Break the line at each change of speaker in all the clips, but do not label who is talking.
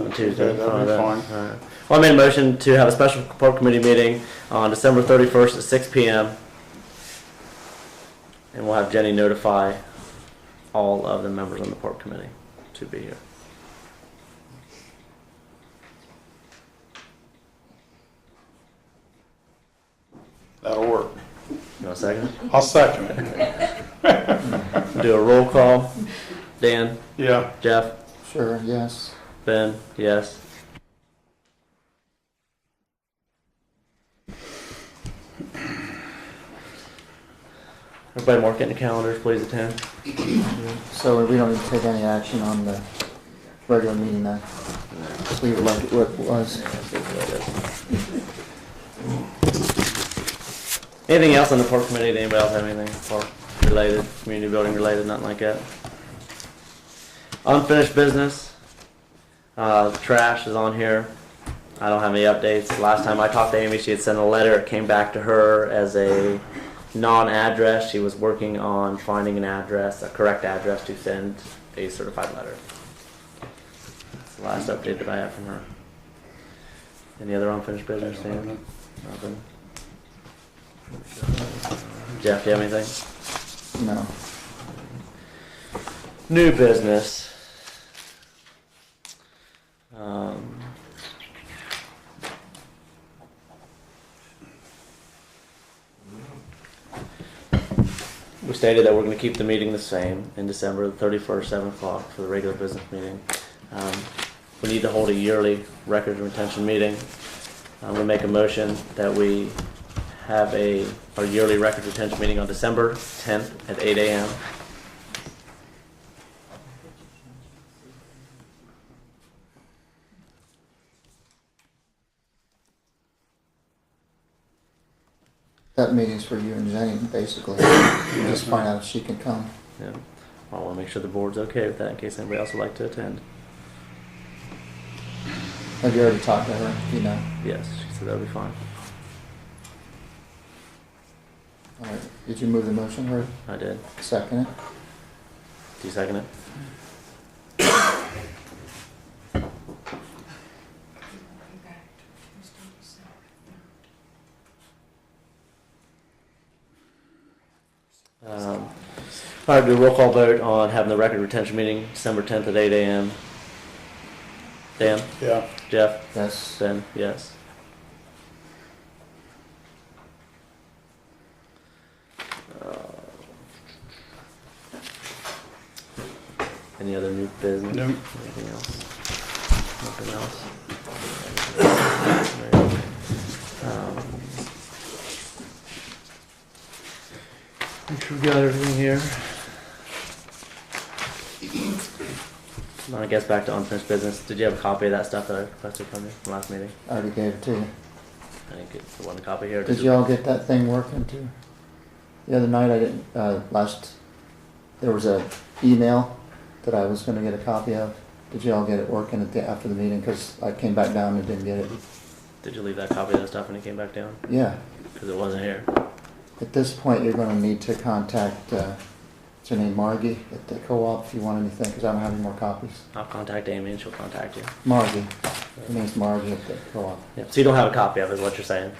on Tuesday.
Yeah, that'll
All
be
right. All right. Well, I made a motion to have a special park committee meeting on December thirty-first at six P M. And we'll have Jenny notify all of the members on the park committee to be here.
That'll work.
You want a second?
I'll second it.
Do a roll call. Dan,
Yeah,
Jeff,
Sure, yes.
Ben, yes. Everybody mark it in the calendars, please attend.
So we don't need to take any action on the regular meeting then? Just leave it like it was.
Anything else on the park committee? Did anybody else have anything park related, community building related, nothing like that? Unfinished business. Uh, trash is on here. I don't have any updates. Last time I talked to Amy, she had sent a letter. It came back to her as a non-address. She was working on finding an address, a correct address to send a certified letter. That's the last update that I have from her. Any other unfinished business, Dan? Nothing. Jeff, do you have anything?
No.
New business. Um, We stated that we're gonna keep the meeting the same in December, the thirty-first, seven o'clock for the regular business meeting. Um, We need to hold a yearly record retention meeting. I'm gonna make a motion that we have a, our yearly record retention meeting on December tenth at eight AM.
That meeting's for you and Jenny, basically. Just find out if she can come.
Yeah, I want to make sure the board's okay with that in case anybody else would like to attend.
Have you already talked to her? You know.
Yes, she said that'll be fine.
All right. Did you move the motion or
I did.
second it?
Do you second it? Um, all right, do a roll call vote on having the record retention meeting December 10th at 8 a.m. Dan,
yeah.
Jeff,
Yes.
Ben, yes. Uh, Any other new business?
No.
Anything else? Nothing else? Um, Make sure we got everything here. Now I guess back to unfinished business. Did you have a copy of that stuff that I requested from you from last meeting?
I already gave it to you.
I didn't get the one copy here.
Did you all get that thing working too? The other night I didn't, uh, last, there was a email that I was gonna get a copy of. Did you all get it working at the, after the meeting? Cause I came back down and didn't get it.
Did you leave that copy of that stuff when it came back down?
Yeah.
Because it wasn't here.
At this point, you're gonna need to contact, uh, Janine Margie at the co-op if you want anything, cause I don't have any more copies.
I'll contact Amy and she'll contact you.
Margie, her name's Margie at the co-op.
Yep. So you don't have a copy of it, is what you're saying?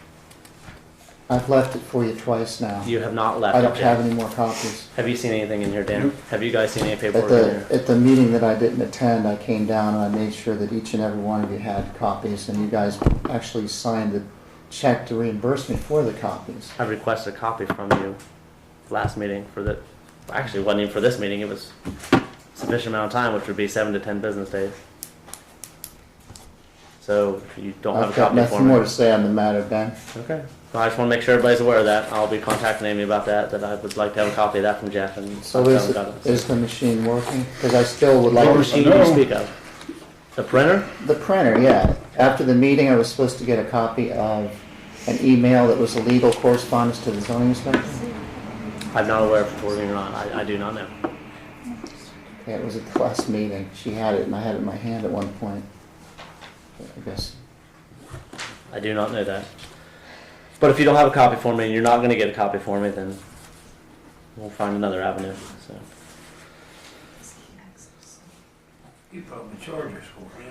I've left it for you twice now.
You have not left.
I
it,
don't
Dan.
have any more copies.
Have you seen anything in here, Dan?
Nope.
Have you guys seen any
At
paperwork in
the,
here?
at the meeting that I didn't attend, I came down and I made sure that each and every one of you had copies, and you guys actually signed the check to reimburse me for the copies.
I requested a copy from you last meeting for the. Actually, it wasn't even for this meeting. It was sufficient amount of time, which would be seven to ten business days. So you don't have
I've
a
got
copy for
nothing
me.
more to say on the matter, Ben.
Okay. Well, I just want to make sure everybody's aware of that. I'll be contacting Amy about that, that I would like to have a copy of that from Jeff and.
So
I
is,
haven't got it.
is the machine working? Because I still would like.
What
Well,
machine do
No.
you speak of? The printer?
The printer, yeah. After the meeting, I was supposed to get a copy of an email that was a legal correspondence to the zoning inspector.
I'm not aware if it's working or not. I, I do not know.
Yeah, it was at the last meeting. She had it, and I had it in my hand at one point. I guess,
I do not know that. But if you don't have a copy for me and you're not gonna get a copy for me, then we'll find another avenue, so.
You probably charge us for it.